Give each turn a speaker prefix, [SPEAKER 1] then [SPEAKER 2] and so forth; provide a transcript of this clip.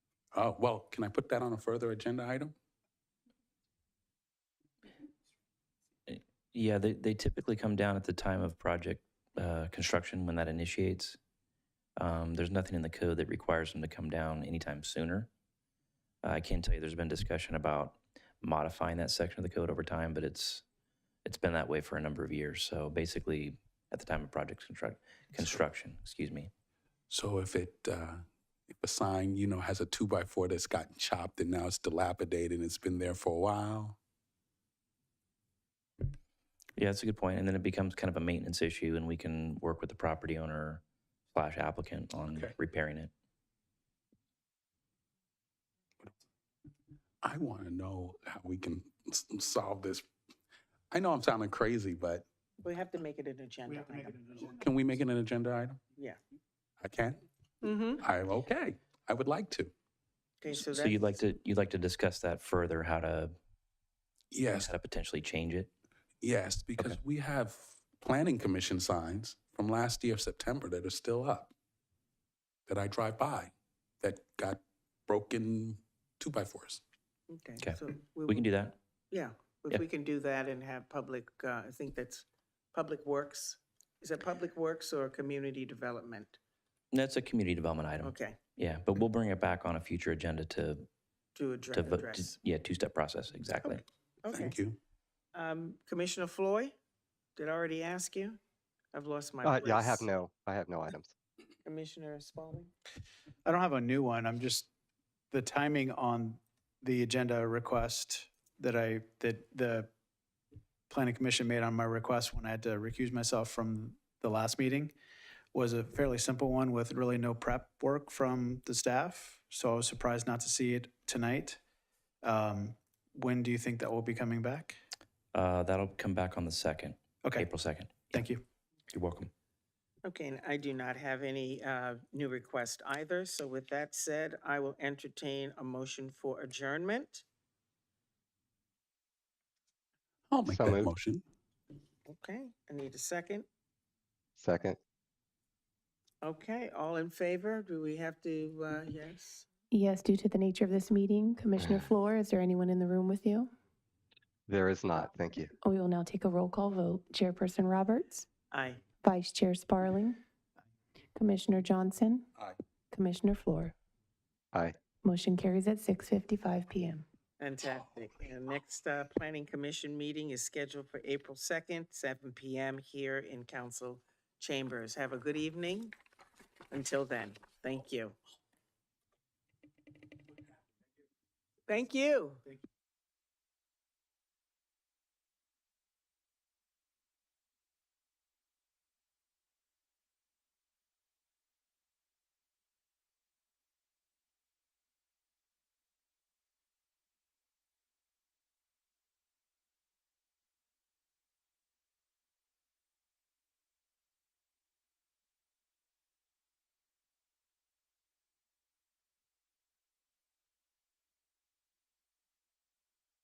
[SPEAKER 1] Uh, Well, can I put that on a further agenda item?
[SPEAKER 2] Yeah, they, they typically come down at the time of project uh, construction when that initiates. Um, there's nothing in the code that requires them to come down anytime sooner. I can tell you there's been discussion about modifying that section of the code over time, but it's it's been that way for a number of years. So basically, at the time of project construct, construction, excuse me,
[SPEAKER 1] So if it, uh, if a sign, you know, has a two-by-four that's gotten chopped and now it's dilapidated and it's been there for a while,
[SPEAKER 2] Yeah, that's a good point. And then it becomes kind of a maintenance issue, and we can work with the property owner slash applicant on
[SPEAKER 1] Okay.
[SPEAKER 2] repairing it.
[SPEAKER 1] I want to know how we can s- solve this. I know I'm sounding crazy, but
[SPEAKER 3] We have to
[SPEAKER 2] Uh,
[SPEAKER 3] make it an agenda item.
[SPEAKER 1] can we make it an agenda item?
[SPEAKER 3] Yeah.
[SPEAKER 1] I can?
[SPEAKER 3] Mm-hmm.
[SPEAKER 1] I'm okay. I would like to.
[SPEAKER 3] Okay,
[SPEAKER 2] So,
[SPEAKER 3] so that's.
[SPEAKER 2] you'd like to you'd like to discuss that further, how to
[SPEAKER 1] Yes,
[SPEAKER 2] how to potentially change it.
[SPEAKER 1] yes, because we have planning commission signs from last year, September, that are still up, that I drive by, that got broken two-by-fours.
[SPEAKER 2] Okay.
[SPEAKER 3] so
[SPEAKER 2] We can
[SPEAKER 3] will-
[SPEAKER 2] do that.
[SPEAKER 3] Yeah,
[SPEAKER 2] yeah.
[SPEAKER 3] if we can do that and have public, uh, I think that's Public Works. Is it Public Works or Community Development?
[SPEAKER 2] That's a community development item.
[SPEAKER 3] Okay,
[SPEAKER 2] Yeah, but we'll bring it back on a future agenda to
[SPEAKER 3] to
[SPEAKER 2] to
[SPEAKER 3] address,
[SPEAKER 2] vote. to-
[SPEAKER 3] address.
[SPEAKER 2] yeah, two step process exactly.
[SPEAKER 3] Okay. Okay.
[SPEAKER 1] Thank you.
[SPEAKER 3] Um, Commissioner Floyd, did I already ask you? I've lost my
[SPEAKER 4] Uh,
[SPEAKER 3] place.
[SPEAKER 4] yeah, I have no, I have no items.
[SPEAKER 3] Commissioner Spaulding?
[SPEAKER 5] I don't have a new one. I'm just, the timing on the agenda request that I, that the planning commission made on my request when I had to recuse myself from the last meeting was a fairly simple one with really no prep work from the staff. So I was surprised not to see it tonight. Um, When do you think that will be coming back?
[SPEAKER 2] Uh, that'll come back on the second,
[SPEAKER 5] Okay,
[SPEAKER 2] April second.
[SPEAKER 5] thank you.
[SPEAKER 2] You're welcome.
[SPEAKER 3] Okay, and I do not have any uh, new request either, so with that said, I will entertain a motion for adjournment.
[SPEAKER 1] I'll make
[SPEAKER 4] So
[SPEAKER 1] that
[SPEAKER 4] moved.
[SPEAKER 1] motion.
[SPEAKER 3] Okay, I need a second.
[SPEAKER 4] Second,
[SPEAKER 3] Okay, all in favor? Do we have to, uh, yes?
[SPEAKER 6] Yes, due to the nature of this meeting, Commissioner Floor, is there anyone in the room with you?
[SPEAKER 4] there is not. Thank you.
[SPEAKER 6] We will now take a roll call vote. Chairperson Roberts,
[SPEAKER 3] Aye.
[SPEAKER 6] Vice Chair Sparling, Commissioner Johnson,
[SPEAKER 1] Aye.
[SPEAKER 6] Commissioner Floor.
[SPEAKER 4] Aye.
[SPEAKER 6] Motion carries at 6:55 PM.
[SPEAKER 3] Fantastic. And next, uh, Planning Commission meeting is scheduled for April 2nd, seven PM here in council chambers. Have a good evening. Until then, thank you. Thank you.